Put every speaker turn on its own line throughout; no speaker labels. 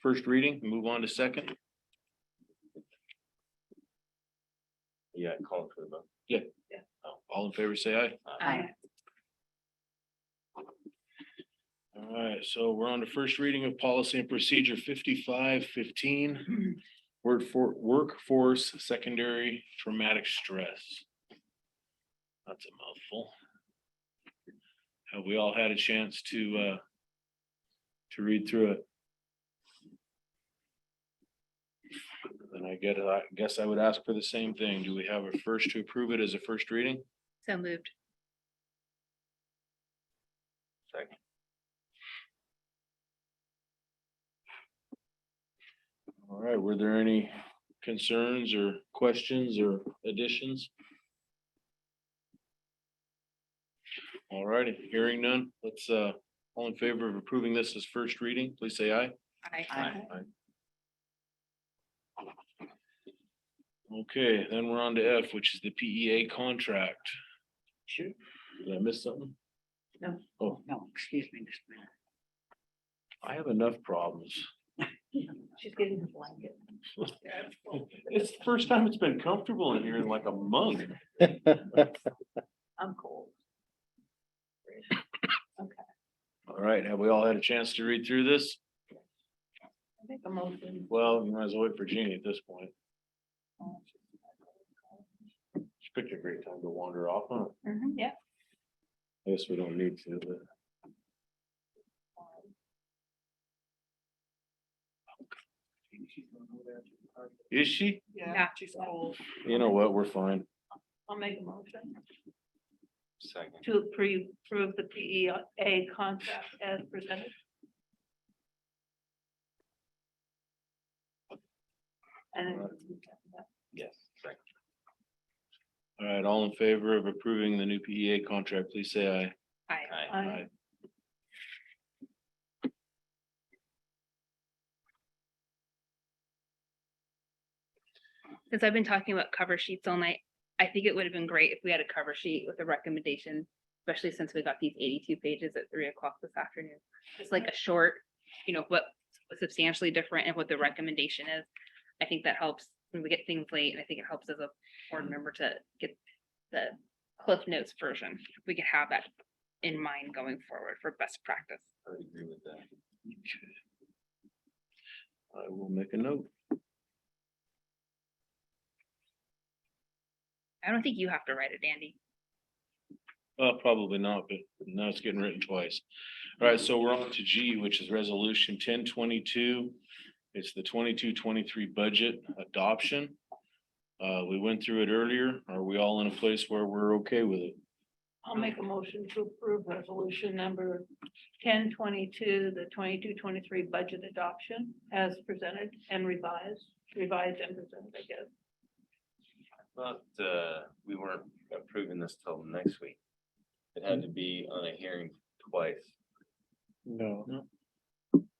first reading, move on to second.
Yeah, call it for the vote.
All in favor, say aye.
Aye.
All right, so we're on to first reading of policy and procedure fifty-five fifteen. Word for workforce secondary traumatic stress. That's a mouthful. Have we all had a chance to uh? To read through it? Then I get, I guess I would ask for the same thing. Do we have a first to approve it as a first reading?
So moved.
All right, were there any concerns or questions or additions? All righty, hearing none, let's, uh, all in favor of approving this as first reading, please say aye.
Aye.
Okay, then we're on to F, which is the PEA contract.
Sure.
Did I miss something?
No.
Oh,
No, excuse me, just a
I have enough problems.
minute.
She's getting the blanket.
It's the first time it's been comfortable in here in like a month.
I'm cold.
All right, have we all had a chance to read through this?
I think I'm open.
Well, you might as well wait for Jeannie at this point.
Mm-hmm.
She picked a great time to wander off, huh?
Yeah.
I guess we don't need to, but. Is she?
Yeah, she's cold.
You know what, we're fine.
I'll make a motion
Second.
to approve, approve the PEA contract as presented. And then-
Yes. Second.
All right, all in favor of approving the new PEA contract, please say aye.
Aye.
Aye.
since I've been talking about cover sheets all night, I think it would have been great if we had a cover sheet with a recommendation, especially since we got these eighty-two pages at three o'clock this afternoon. Just like a short, you know, what substantially different and what the recommendation is. I think that helps when we get things late, and I think it helps as a board member to get the Cliff Notes version. We could have that in mind going forward for best practice.
I would agree with that.
I will make a note.
I don't think you have to write it, Andy.
Well, probably not, but now it's getting written twice. All right, so we're on to G, which is resolution ten twenty-two. It's the 22-23 budget adoption. Uh, we went through it earlier. Are we all in a place where we're okay with it?
I'll make a motion to approve resolution number ten twenty-two, the 22-23 budget adoption as presented and revised, revised and presented, I guess.
But uh, we weren't approving this till next week. It had to be on a hearing twice.
No.
No?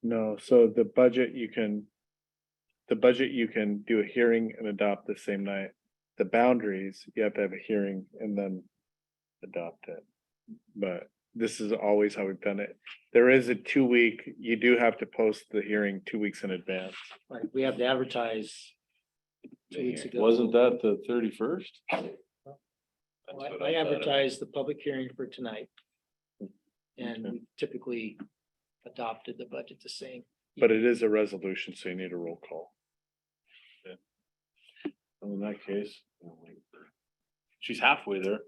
No, so the budget you can, the budget you can do a hearing and adopt the same night. The boundaries, you have to have a hearing and then adopt it. But this is always how we've done it. There is a two week, you do have to post the hearing two weeks in advance.
Right, we have to advertise.
the
Two weeks
hearing.
ago.
Wasn't that the thirty-first?
That's
Well,
what
I I
thought it-
advertised the public hearing for tonight. And we typically adopted the budget the same.
But it is a resolution, so you need a roll call.
In that case. oh, She's halfway there.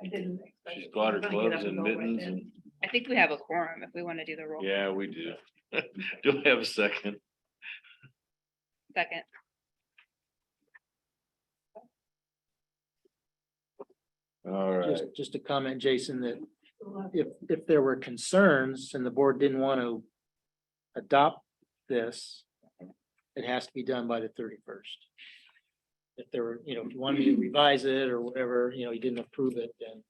I didn't. expect
She's
it.
got her
I'm gonna get up
gloves and
go right
mittens
in.
and,
I think we have a quorum if we want to do the roll.
yeah, we do. Do I have a second?
Second.
All right.
Just, just to comment, Jason, that if, if there were concerns and the board didn't want to adopt this, it has to be done by the thirty-first. If there were, you know, if you wanted me to revise it or whatever, you know, you didn't approve it, then,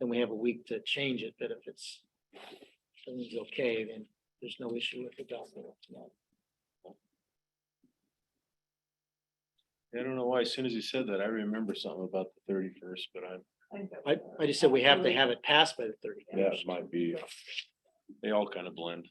then we have a week to change it, but if it's, everything's okay, then there's no issue with adopting it. tonight.
I don't know why, as soon as you said that, I remember something about the thirty-first, but I'm.
I think that-
I, I just said we have to have it passed by the
That
thirty-first.
might be. They all kind of blend.